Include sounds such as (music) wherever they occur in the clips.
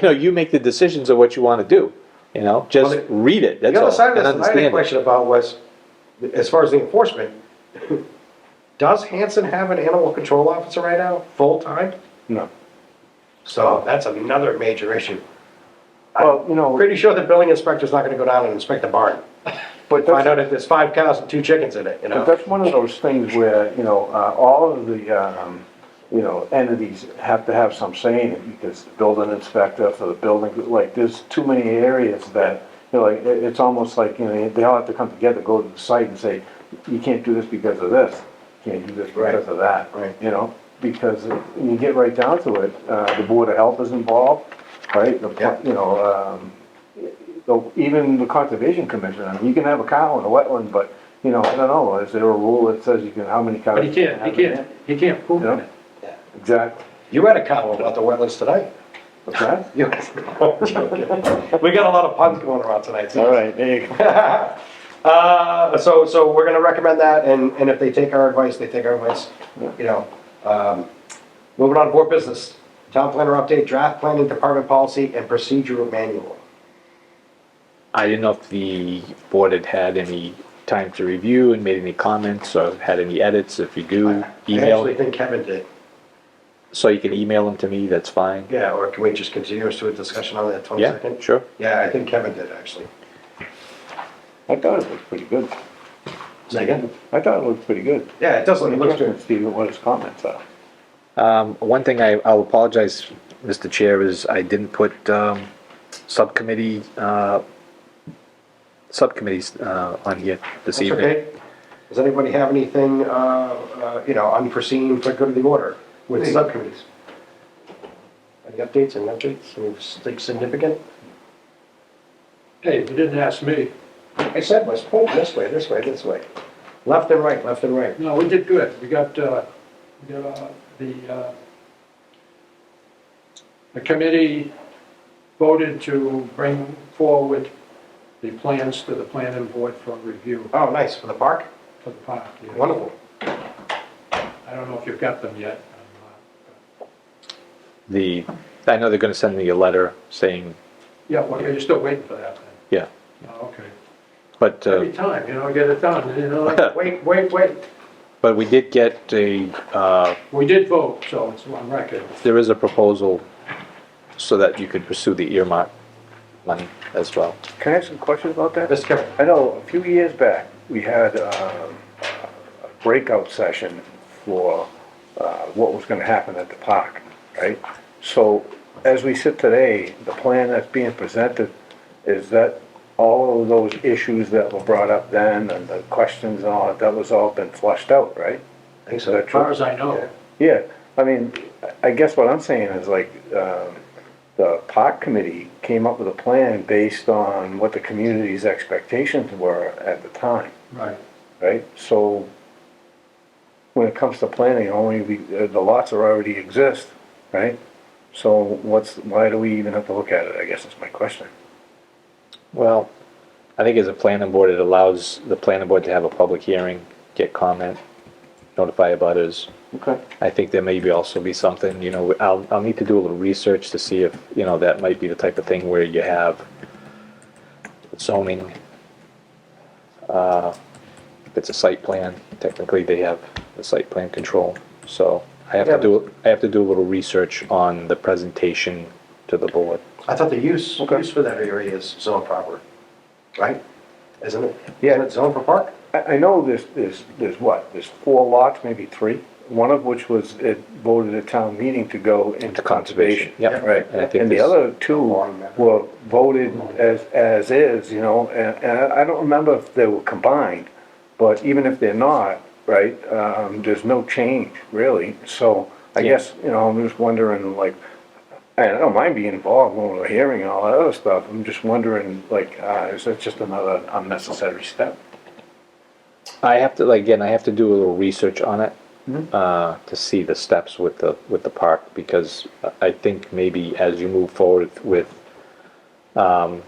you know, you make the decisions of what you want to do, you know, just Well, the- read it, that's The all. other side of and this, that I had understand a it. question about was, as far as the enforcement, does Hanson have an animal control officer right now, full-time? No. So that's another major issue. Well, you know, Pretty sure the building inspector's not gonna go down and inspect the barn, find but that's, out if there's five cows and two chickens in it, you but know? that's one of those things where, you know, uh, all of the, um, you know, entities have to have some say in it, because the building inspector for the building, like, there's too many areas that, you know, like, it, it's almost like, you know, they all have to come together, go to the site and say, you can't do this because of this, you can't do this because of that. Right, right. You know, because when you get right down to it, uh, the Board of Health is involved, right? The pla- Yeah. You know, um, So even the conservation commission, I mean, you can have a cow in a wetland, but, you know, I don't know, is there a rule that says you can, how many cows? But he you can can't, he have in can't, he can't prove there? it. Yeah, exactly, You had a cow about the wetlands tonight. what's that? You- (laughs) I'm joking. We got a lot of puns going around tonight, so. right, there you go. Uh, so, so we're gonna recommend that, and, and if they take our advice, they take our advice, you know. Um, Moving on to board business, town planner update, draft planning department policy and procedure manual. I didn't know if the board had had any time to review and made any comments or had any edits, if you do, I actually email, think Kevin did, so you can email them to me, that's fine. yeah, or can we just continue us to a discussion on that twenty Yeah, second? sure. Yeah, I think Kevin did, actually. I thought it looked pretty good, Second? I thought it looked pretty good. Yeah, it does, look- it looks Interesting, good. to see what his comments are. Um, one thing I, I'll apologize, Mr. Chair, is I didn't put, um, subcommittee, uh, subcommittees, uh, on here this That's evening. okay. Does anybody have anything, uh, uh, you know, unforeseen for good of the order with subcommittees? Any updates, any updates, anything significant? Hey, you didn't ask me. I said, was pulled this way, this way, this way. Left and right, left and right. No, we did good. We got, uh, we got, uh, the, uh, the committee voted to bring forward the plans to the planning board for review Oh, nice, for the park? for the park. yeah. Wonderful. I don't know if you've got them yet. The, I know they're gonna send me a letter saying, Yeah, well, you're still waiting for that then? yeah, Oh, Okay. but, uh, Every time, you know, get it done, (laughs) you know? Wait, wait, wait. but we did get a, uh, We did vote, so it's on record. there is a proposal so that you could pursue the earmark money as well. Can I ask a question about that? Mr. Kevin, I know a few years back, we had um, a breakout session for uh, what was gonna happen at the park, right? So as we sit today, the plan that's being presented, is that all of those issues that were brought up then and the questions and all, that, that was all been flushed out, right? I think Is that As true? far as I know. Yeah, I mean, I guess what I'm saying is like, um, the park committee came up with a plan based on what the community's expectations were at the time, Right. right? So when it comes to planning, only the, the lots are already exist, right? So what's, why do we even have to look at it, I guess is my question. Well, I think as a planning board, it allows the planning board to have a public hearing, get comment, notify abutters. Okay. I think there may be also be something, you know, I'll, I'll need to do a little research to see if, you know, that might be the type of thing where you have zoning. uh, If it's a site plan, technically they have the site plan control, so I have Yeah, to but- do, I have to do a little research on the presentation to the board. I thought the use, Okay. use for that area is zone proper, right? Isn't it? Yeah. Isn't it zone for park? I, I know there's, there's, there's what, there's four lots, maybe three, one of which was, it voted at town meeting to go into conservation, conservation. yeah. Right, And I think and the this- other two were voted as, as is, you know, and, and I don't remember if they were combined, but even if they're not, right, um, there's no change, really, so I Yeah. guess, you know, I'm just wondering, like, I don't mind being involved when we're hearing all that other stuff, I'm just wondering, like, uh, is that just another unnecessary step? I have to, like, again, I have to do a little research on it, uh, to see the steps with the, with the park, because I think maybe as you move forward with, um,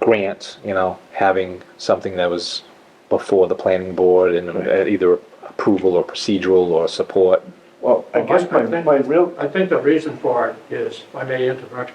grants, you know, having something that was before the planning board and uh, either approval or procedural or support, Well, I Well, guess my, I think- my real I think the reason for it is, if I may interrupt